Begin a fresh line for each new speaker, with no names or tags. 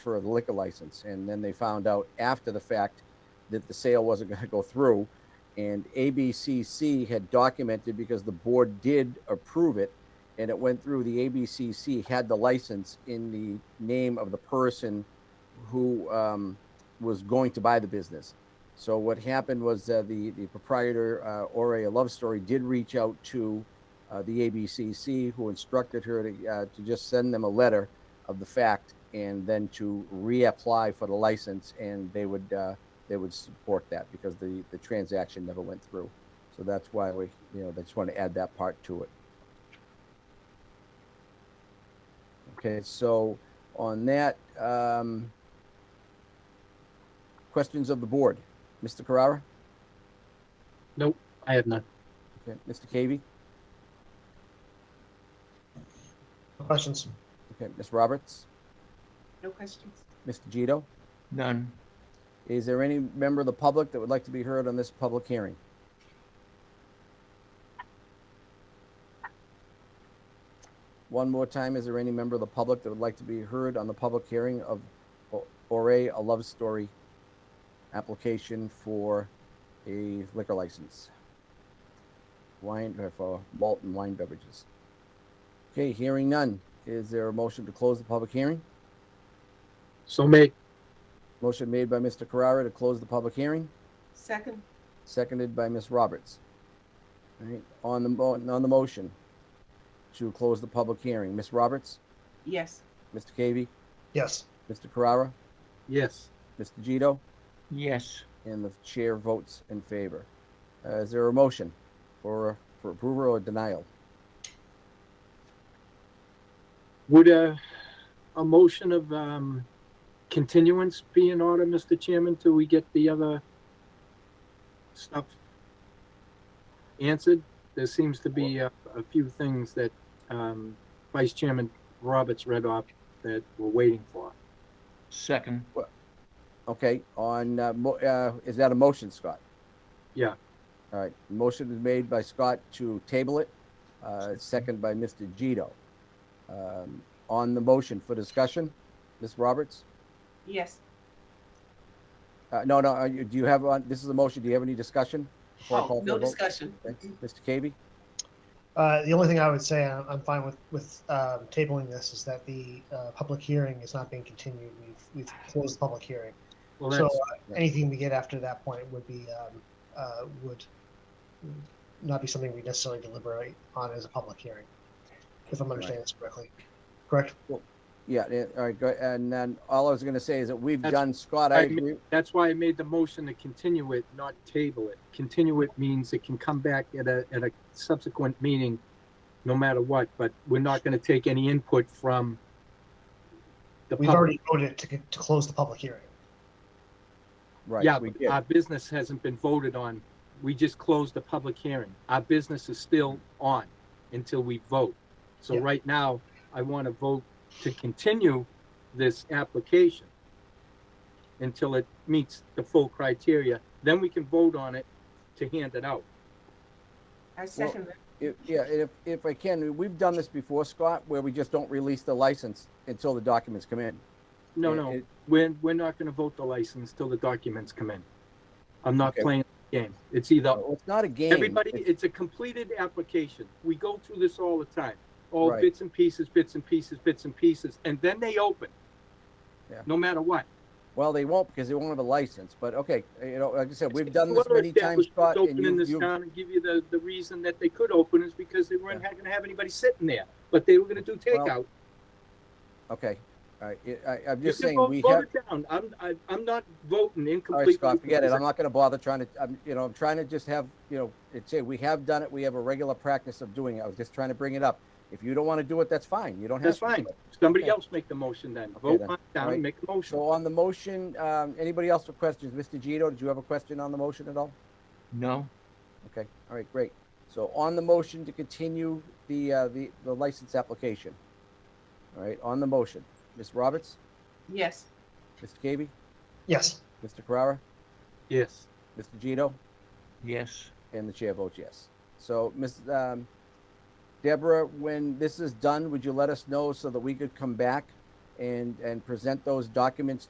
for a liquor license. And then they found out after the fact that the sale wasn't going to go through. And ABCC had documented because the board did approve it and it went through. The ABCC had the license in the name of the person who um, was going to buy the business. So what happened was uh, the the proprietor uh, Ore a Love Story did reach out to uh, the ABCC, who instructed her to uh, to just send them a letter of the fact and then to reapply for the license, and they would uh, they would support that because the the transaction never went through. So that's why we you know they just want to add that part to it. Okay, so on that, um, questions of the board, Mr. Carrara,
Nope, I have none.
okay, Mr. Cavey,
Questions?
okay, Ms. Roberts,
No questions?
Mr. Gito.
None.
Is there any member of the public that would like to be heard on this public hearing? One more time, is there any member of the public that would like to be heard on the public hearing of O- Ore, a love story application for a liquor license? Wine, uh, for Walton Wine Beverages. Okay, hearing none. Is there a motion to close the public hearing?
So made.
Motion made by Mr. Carrara to close the public hearing?
Second?
seconded by Ms. Roberts. All right, on the, mo- on the motion to close the public hearing, Ms. Roberts,
Yes.
Mr. Cavey,
Yes.
Mr. Carrara,
Yes.
Mr. Gito,
Yes.
and the chair votes in favor. Uh, is there a motion for, for approval or denial?
Would a, a motion of, um, continuance be in order, Mr. Chairman, till we get the other stuff answered? There seems to be a, a few things that, um, Vice Chairman Roberts read off that we're waiting for.
Second,
Okay, on, uh, mo- uh, is that a motion, Scott?
Yeah.
All right, motion is made by Scott to table it, uh, second by Mr. Gito. Um, on the motion for discussion, Ms. Roberts?
Yes.
Uh, no, no, uh, you- do you have, on this is a motion, do you have any discussion? before I
Oh,
call for
no
a vote?
discussion.
Okay. Mr. Cavey,
Uh, the only thing I would say, I'm, I'm fine with, with, um, tabling this is that the, uh, public hearing is not being continued. We've, we've closed the public hearing.
Well,
So
that's,
uh, anything we get after that point would be, um, uh, would not be something we necessarily deliberate on as a public hearing, if I'm understanding this correctly. Correct?
yeah, yeah, all right, go, and then all I was gonna say is that we've
That's-
done, Scott, I
I
agree,
that's why I made the motion to continue it, not table it. Continue it means it can come back at a, at a subsequent meeting, no matter what, but we're not gonna take any input from the
We've
public.
already voted to, to close the public hearing.
right.
Yeah,
we
but
did.
our business hasn't been voted on. We just closed the public hearing. Our business is still on until we vote. So
Yeah.
right now, I want to vote to continue this application until it meets the full criteria. Then we can vote on it to hand it out.
I second that.
If- Yeah, if, if I can, we've done this before, Scott, where we just don't release the license until the documents come in.
No,
It-
no,
it-
we're, we're not going to vote the license till the documents come in. I'm not
Okay. Oh.
playing the game. It's either
well, It's not a game.
Everybody,
It's-
it's a completed application. We go through this all the time. All
Right.
bits and pieces, bits and pieces, bits and pieces, and then they open.
Yeah.
No matter what.
Well, they won't because they won't have a license, but okay, you know, like I said, we've done this
Whoever
many times,
established
Scott, and
Open in
you,
this
you,
town and give you the, the reason that they could open is because they weren't gonna have anybody sitting there, but they were gonna do takeout.
okay. All right, I- I, I'm
You
just
can
saying,
vote-
we
vote
have,
it down. I'm, I, I'm not
All
voting
right,
incomplete.
Scott, forget it. I'm not gonna bother trying to, I'm, you know, I'm trying to just have, you know, it's, it. we have done it. We have a regular practice of doing it. I was just trying to bring it up. If you don't wanna do it, that's fine. You don't have
That's
to.
fine. Somebody
Okay.
else make the motion then.
Okay,
Vote
then.
mine down,
Alright.
and make a motion.
So on the motion, um, anybody else with questions? Mr. Gito, did you have a question on the motion at all?
no.
Okay, all right, great. So on the motion to continue the, uh, the, the license application. All right, on the motion, Ms. Roberts,
Yes.
Mr. Cavey,
Yes.
Mr. Carrara,
Yes.
Mr. Gito?
Yes.
And the chair votes yes. So, Ms. Um, Deborah, when this is done, would you let us know so that we could come back and, and present those documents